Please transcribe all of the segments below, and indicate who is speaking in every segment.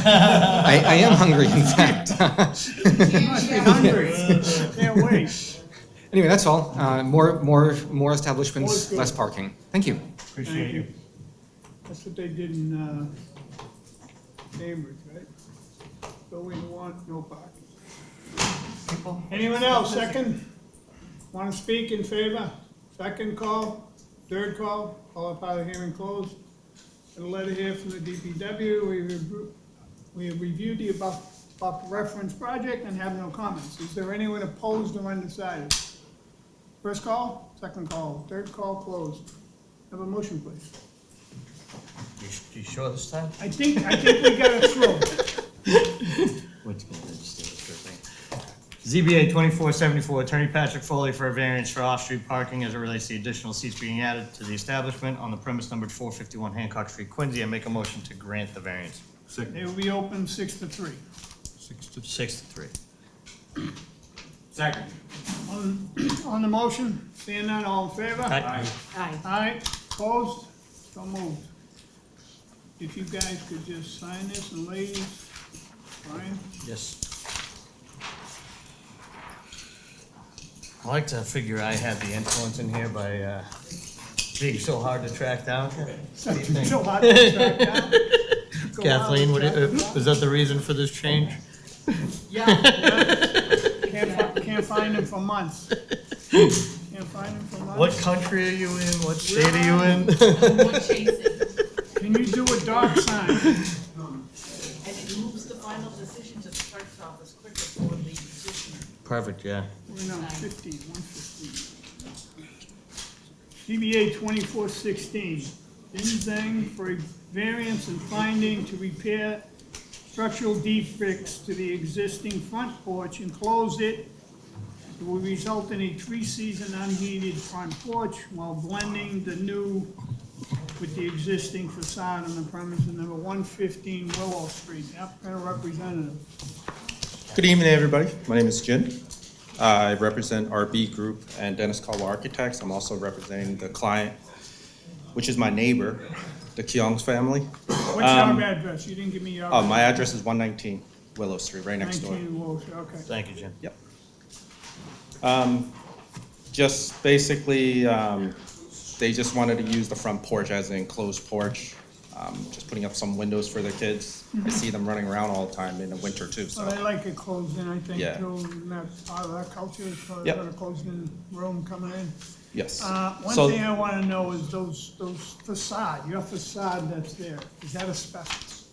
Speaker 1: I, I am hungry, in fact.
Speaker 2: must be hungry. Can't wait.
Speaker 1: Anyway, that's all. Uh, more, more, more establishments, less parking. Thank you.
Speaker 2: Thank
Speaker 3: Appreciate
Speaker 2: you.
Speaker 3: it.
Speaker 2: That's what they did in, uh, Cambridge, right? Building one, no parking. Anyone else, second? Want to speak in favor? Second call, third call, all up out of hearing closed. Got A letter here from the DPW, we review- we have reviewed the above, above reference project and have no comments. Is there anyone opposed or undecided? First call, second call, third call closed. Have a motion, please.
Speaker 3: You s- You sure this time?
Speaker 2: I think, I think we got it through.
Speaker 3: What's going on, just do it for a thing. ZBA twenty-four seventy-four, Attorney Patrick Foley for a variance for off-street parking as it relates to the additional seats being added to the establishment on the premise numbered four fifty-one Hancock Street, Quincy. I make a motion to grant the variance.
Speaker 2: It will be open six to three.
Speaker 3: Six to. Six to three.
Speaker 4: Second.
Speaker 2: On, on the motion, seeing none, all in favor?
Speaker 3: Aye.
Speaker 5: Aye.
Speaker 2: Aye, opposed, so moved. If you guys could just sign this, and ladies, Brian,
Speaker 3: Yes. I like to figure I had the influence in here by, uh, being so hard to track down.
Speaker 2: so so hard to track down. Go
Speaker 3: Kathleen, what,
Speaker 2: hard
Speaker 3: do
Speaker 2: to
Speaker 3: you-
Speaker 2: track
Speaker 3: was that the reason for this change?
Speaker 2: down. Can't, fi- can't find him for months. Can't find him for
Speaker 3: What
Speaker 2: months.
Speaker 3: country are you in? What state are you in?
Speaker 2: Can you do a dog sign?
Speaker 6: And it moves the final decision to the clerk's office quicker for the petitioner.
Speaker 3: Perfect, yeah.
Speaker 2: We're now fifteen, one fifteen. CBA twenty-four sixteen, Din Zhang for a variance and finding to repair structural defects to the existing front porch and close it. It will result in a three-season unheated front porch while blending the new with the existing facade on the premise of number one fifteen Willow Street. Applicant representative.
Speaker 4: Good evening, everybody. My name is Jin. I represent RB Group and Dennis Caldwell Architects. I'm also representing the client, which is my neighbor, the Keongs family.
Speaker 2: What's your address? You didn't give me your.
Speaker 4: Uh, My address is 119 Willow Street, right next door.
Speaker 2: Nineteen Walsh, okay.
Speaker 3: Thank you, Jim.
Speaker 4: Yep. Um, Just basically, um, they just wanted to use the front porch as an enclosed porch, Um, just putting up some windows for their kids.
Speaker 2: Mm-hmm.
Speaker 4: I see them running around all the time in the winter too, so.
Speaker 2: So they like it closed in, I think,
Speaker 4: Yeah.
Speaker 2: too, and that's part of our culture, so they
Speaker 4: Yep.
Speaker 2: got a closed in room coming in.
Speaker 4: Yes.
Speaker 2: Uh,
Speaker 4: So-
Speaker 2: one thing I wanna know is those, those facade, your facade that's there, is that asbestos?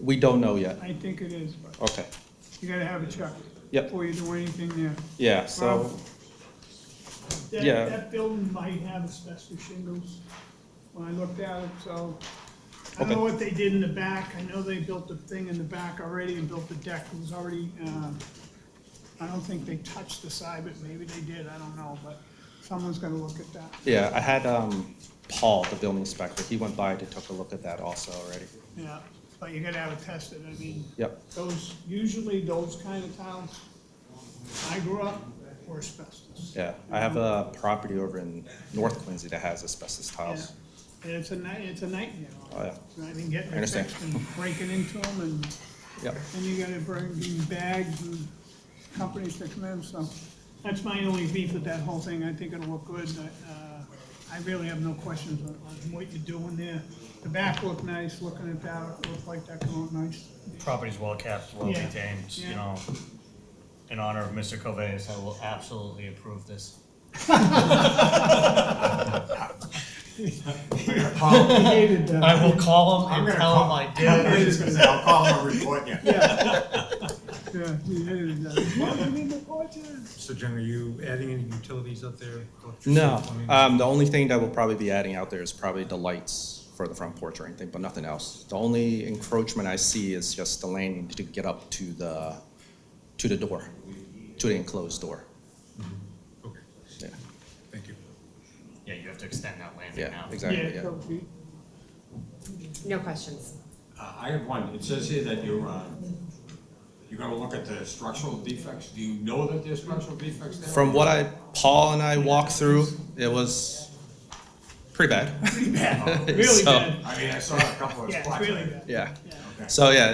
Speaker 4: We don't know yet.
Speaker 2: I think it is, but
Speaker 4: Okay,
Speaker 2: you gotta have it checked.
Speaker 4: Yep.
Speaker 2: Before you do anything there.
Speaker 4: yeah, so,
Speaker 2: Well, That,
Speaker 4: Yeah.
Speaker 2: that building might have asbestos shingles, when I looked at it, so. I don't
Speaker 4: Okay.
Speaker 2: know what they did in the back, I know they built the thing in the back already and built the deck, it was already, uh, I don't think they touched the side, but maybe they did, I don't know, but someone's gonna look at that,
Speaker 4: yeah, I had um, Paul, the building inspector, he went by to take a look at that also already.
Speaker 2: yeah. But you gotta have it tested, I mean.
Speaker 4: Yep,
Speaker 2: Those, usually those kind of towns, I grew up, were asbestos.
Speaker 4: yeah, I have a property over in North Quincy that has asbestos
Speaker 2: Yeah,
Speaker 4: tiles.
Speaker 2: And it's a night, it's a nightmare.
Speaker 4: Oh, yeah.
Speaker 2: I mean, getting
Speaker 4: I understand.
Speaker 2: fixed and breaking into them and
Speaker 4: Yep,
Speaker 2: then you gotta bring in bags and companies to come in, so. That's my only beef with that whole thing. I think it'll look good. Uh, I really have no questions on, on what you're doing there. The back looked nice, looking at that, it looked like that come out nice.
Speaker 3: Property's well kept, well
Speaker 2: Yeah.
Speaker 3: maintained, you
Speaker 2: Yeah.
Speaker 3: know. In honor of Mr. Covey's, I will absolutely approve this.
Speaker 2: I hated that.
Speaker 3: I will call him
Speaker 7: I'm
Speaker 3: and
Speaker 7: gonna
Speaker 3: tell him
Speaker 7: call,
Speaker 3: I
Speaker 7: I'm
Speaker 3: did.
Speaker 7: just gonna say, I'll call him and report you.
Speaker 2: Yeah, yeah, he hated that. Look, I'm in the orchard.
Speaker 7: So Jen, are you adding any utilities up there? electricity,
Speaker 4: no,
Speaker 7: plumbing?
Speaker 4: um, the only thing that we'll probably be adding out there is probably the lights for the front porch or anything, but nothing else. The only encroachment I see is just the landing to get up to the, to the door, to the enclosed door,
Speaker 7: Okay,
Speaker 4: yeah,
Speaker 7: thank you.
Speaker 3: Yeah, you have to extend that landing
Speaker 4: yeah,
Speaker 3: now.
Speaker 4: exactly,
Speaker 2: Yeah,
Speaker 4: yeah.
Speaker 2: so he-
Speaker 5: No questions.
Speaker 8: Uh, I have one. It says here that you're, uh, you're gonna look at the structural defects. Do you know that there's structural defects there?
Speaker 4: From what I, Paul and I walked through, it was pretty bad.
Speaker 8: Pretty bad.
Speaker 2: Really
Speaker 4: So-
Speaker 2: bad.
Speaker 8: I mean, I saw a couple of
Speaker 2: Yeah,
Speaker 8: spots.
Speaker 2: it's really bad.
Speaker 4: Yeah.
Speaker 8: Okay.
Speaker 4: So yeah,